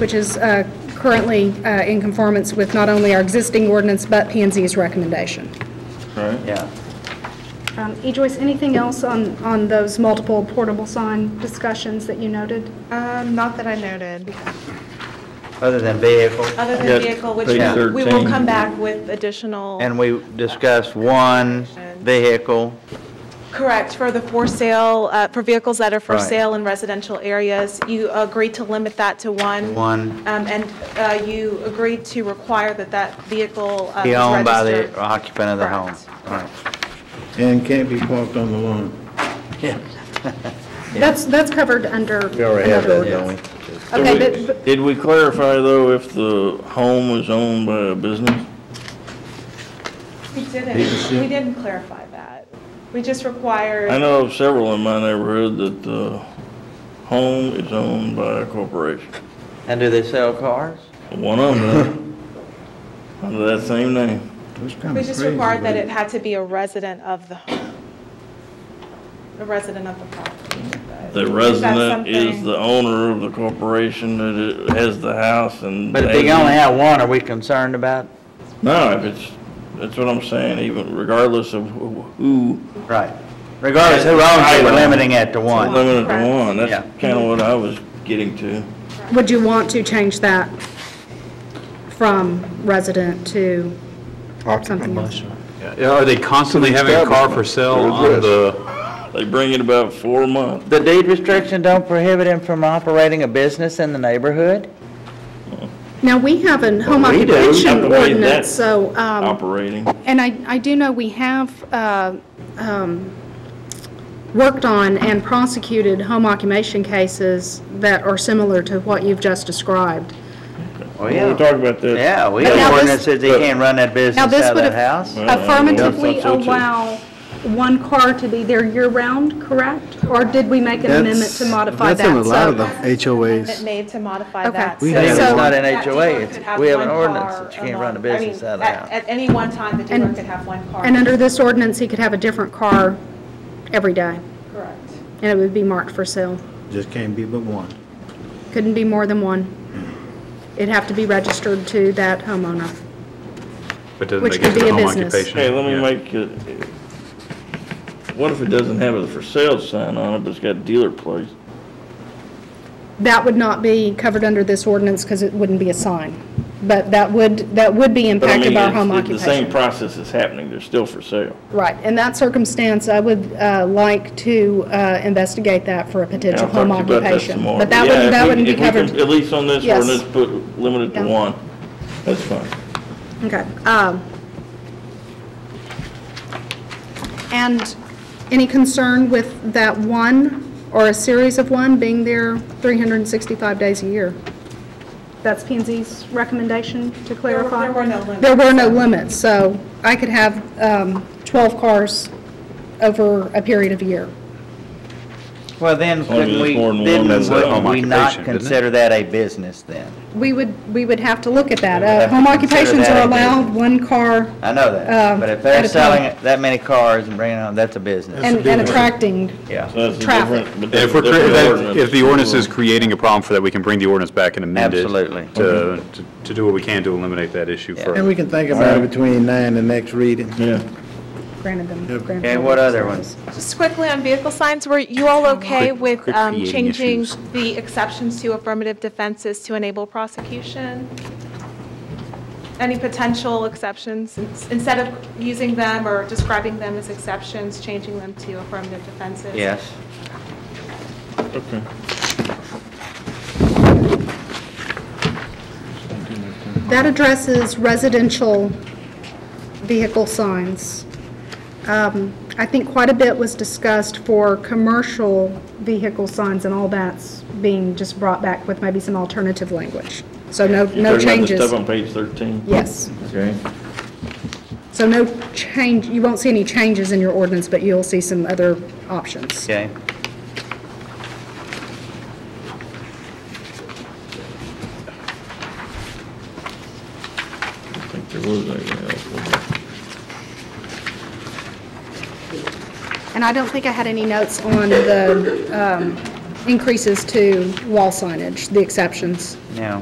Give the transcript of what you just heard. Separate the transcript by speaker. Speaker 1: which is uh, currently uh, in conformance with not only our existing ordinance, but p and Z's recommendation.
Speaker 2: right?
Speaker 3: Yeah.
Speaker 1: Um, E. Joyce, anything else on, on those multiple portable sign discussions that you noted?
Speaker 4: Um, Not that I noted,
Speaker 3: Other than vehicle,
Speaker 4: other
Speaker 2: Yeah,
Speaker 4: than vehicle, which
Speaker 2: page
Speaker 4: we will
Speaker 2: 13.
Speaker 4: come back with additional.
Speaker 3: and we discussed one vehicle,
Speaker 4: Correct, for the for sale, uh, for vehicles that are for
Speaker 3: Right.
Speaker 4: sale in residential areas. You agreed to limit that to one.
Speaker 3: one
Speaker 4: Um, And uh, you agreed to require that that vehicle uh,
Speaker 3: be
Speaker 4: is
Speaker 3: owned by
Speaker 4: registered.
Speaker 3: the uh, occupant of the home.
Speaker 4: Correct.
Speaker 3: All right.
Speaker 2: And can't be parked on the lawn.
Speaker 1: That's, that's covered under.
Speaker 5: We already have
Speaker 1: another
Speaker 5: that, don't we?
Speaker 1: ordinance. Okay,
Speaker 6: we-
Speaker 1: but-
Speaker 6: Did we clarify, though, if the home was owned by a business?
Speaker 4: We didn't, we didn't clarify that. We just required.
Speaker 6: I know of several in my neighborhood that the home is owned by a corporation.
Speaker 3: And do they sell cars?
Speaker 6: One of them, under that same name.
Speaker 2: That's kind
Speaker 4: We
Speaker 2: of
Speaker 4: just
Speaker 2: crazy.
Speaker 4: required that
Speaker 2: but-
Speaker 4: it had to be a resident of the home, a resident of the property.
Speaker 6: The
Speaker 4: Is that
Speaker 6: resident is
Speaker 4: something-
Speaker 6: the owner of the corporation that it has the house and.
Speaker 3: But if they only have one, are we concerned about?
Speaker 6: No, if it's, that's what I'm saying, even regardless of who- who,
Speaker 3: Right. Regardless who owns it, we're limiting it to one.
Speaker 6: limited to one,
Speaker 3: Yeah.
Speaker 6: that's kind of what I was getting to.
Speaker 1: Would you want to change that from resident to something else?
Speaker 7: Yeah, Are they constantly having a car for sale on the,
Speaker 6: They bring it about four months.
Speaker 3: The deed restriction don't prohibit him from operating a business in the neighborhood?
Speaker 1: Now, we have a home
Speaker 6: Well, we do.
Speaker 1: occupation
Speaker 6: Operate that.
Speaker 1: ordinance, so, um,
Speaker 6: operating.
Speaker 1: and I, I do know we have uh, um, worked on and prosecuted home occupation cases that are similar to what you've just described.
Speaker 3: Oh,
Speaker 6: We'll talk about that.
Speaker 3: Yeah, we
Speaker 1: But now
Speaker 3: have
Speaker 1: this-
Speaker 3: ordinance says he can't run that business
Speaker 1: Now,
Speaker 3: out
Speaker 1: this
Speaker 3: of
Speaker 1: would
Speaker 3: that house.
Speaker 5: Uh,
Speaker 1: affirmatively
Speaker 6: Yeah, so too.
Speaker 1: allow one car to be there year-round, correct? Or did we make an amendment to modify that?
Speaker 5: That's in a lot of
Speaker 1: So-
Speaker 5: the
Speaker 4: Amendment
Speaker 5: HOAs.
Speaker 4: made to modify
Speaker 1: Okay.
Speaker 4: that.
Speaker 1: We
Speaker 4: so
Speaker 3: have- It's
Speaker 4: that
Speaker 3: not an
Speaker 4: that
Speaker 3: HOA,
Speaker 4: dealer
Speaker 3: it's-
Speaker 4: could have
Speaker 3: we have an
Speaker 4: one
Speaker 3: ordinance
Speaker 4: car
Speaker 3: that you can't run a
Speaker 4: alone. I mean,
Speaker 3: business out of the
Speaker 4: at-
Speaker 3: house.
Speaker 4: At any one time, the dealer
Speaker 1: And-
Speaker 4: could have one car.
Speaker 1: And under this ordinance, he could have a different car every day,
Speaker 4: Correct.
Speaker 1: and it would be marked for sale.
Speaker 2: Just can't be but one.
Speaker 1: Couldn't be more than one. It'd have to be registered to that homeowner.
Speaker 7: but doesn't
Speaker 1: Which
Speaker 7: they get
Speaker 1: could
Speaker 7: to
Speaker 1: be
Speaker 7: the
Speaker 1: a
Speaker 7: home
Speaker 1: business.
Speaker 7: occupation?
Speaker 6: Hey, let me
Speaker 7: Yeah.
Speaker 6: make, it- what if it doesn't have a for sale sign on it, but it's got dealer plates?
Speaker 1: That would not be covered under this ordinance because it wouldn't be a sign. But that would, that would be
Speaker 6: But I mean,
Speaker 1: impacted by
Speaker 6: it's-
Speaker 1: home
Speaker 6: it's The same
Speaker 1: occupation.
Speaker 6: process is happening, they're still for sale.
Speaker 1: Right. In that circumstance, I would uh, like to uh, investigate that for a
Speaker 6: And I'll
Speaker 1: potential
Speaker 6: talk
Speaker 1: home
Speaker 6: to you about that some
Speaker 1: occupation.
Speaker 6: more.
Speaker 1: But that
Speaker 6: Yeah,
Speaker 1: wouldn't,
Speaker 6: if
Speaker 1: that
Speaker 6: we-
Speaker 1: wouldn't be
Speaker 6: if we can-
Speaker 1: covered.
Speaker 6: At least on this
Speaker 1: Yes.
Speaker 6: ordinance, put, limited to
Speaker 1: Yeah.
Speaker 6: one. That's fine.
Speaker 1: Okay. um, And any concern with that one or a series of one being there 365 days a year? That's p and Z's recommendation to
Speaker 4: There were-
Speaker 1: clarify?
Speaker 4: there were no limits.
Speaker 1: There were no limits, so I could have um, 12 cars over a period of a year.
Speaker 3: Well,
Speaker 6: long
Speaker 3: then,
Speaker 6: as
Speaker 3: couldn't
Speaker 6: it's
Speaker 3: we,
Speaker 6: more than
Speaker 3: then
Speaker 6: one, it's a
Speaker 3: wouldn't
Speaker 6: home
Speaker 3: we not
Speaker 7: occupation, isn't it?
Speaker 3: consider that a business then?
Speaker 1: We would, we would have to look at that.
Speaker 3: We would
Speaker 1: Uh,
Speaker 3: have to
Speaker 1: Home
Speaker 3: consider
Speaker 1: occupations
Speaker 3: that
Speaker 1: are
Speaker 3: a
Speaker 1: allowed,
Speaker 3: business.
Speaker 1: one car,
Speaker 3: I know
Speaker 1: Um,
Speaker 3: that, but if
Speaker 1: at
Speaker 3: they're
Speaker 1: a
Speaker 3: selling
Speaker 1: time.
Speaker 3: that many cars and bringing them, that's a business.
Speaker 1: and and attracting
Speaker 3: Yeah.
Speaker 6: So that's a
Speaker 1: Traffic.
Speaker 6: different- but that's
Speaker 7: If we're,
Speaker 6: a different
Speaker 7: crea- if- if the ordinance is creating a problem for that, we can bring the ordinance back and amend it.
Speaker 3: Absolutely.
Speaker 7: To, to- to do what we can to eliminate that issue
Speaker 3: Yeah.
Speaker 7: further.
Speaker 2: And we can think about it between now and the next reading.
Speaker 6: Yeah.
Speaker 1: granted them.
Speaker 3: Okay, what other ones?
Speaker 4: Just quickly on vehicle signs, were you all okay
Speaker 7: Quick-
Speaker 4: with
Speaker 7: quick
Speaker 4: um,
Speaker 7: creating
Speaker 4: changing
Speaker 7: issues.
Speaker 4: the exceptions to affirmative defenses to enable prosecution? Any potential exceptions, in- instead of using them or describing them as exceptions, changing them to affirmative defenses?
Speaker 3: Yes.
Speaker 6: Okay.
Speaker 1: That addresses residential vehicle signs. Um, I think quite a bit was discussed for commercial vehicle signs, and all that's being just brought back with maybe some alternative language. So no, no
Speaker 6: You're talking about the
Speaker 1: changes.
Speaker 6: Stuff on page 13?
Speaker 1: Yes.
Speaker 6: Okay.
Speaker 1: So no change, you won't see any changes in your ordinance, but you'll see some other options.
Speaker 3: Okay.
Speaker 6: I think there was anything else. wasn't there?
Speaker 1: And I don't think I had any notes on the um, increases to wall signage, the exceptions.
Speaker 3: Now,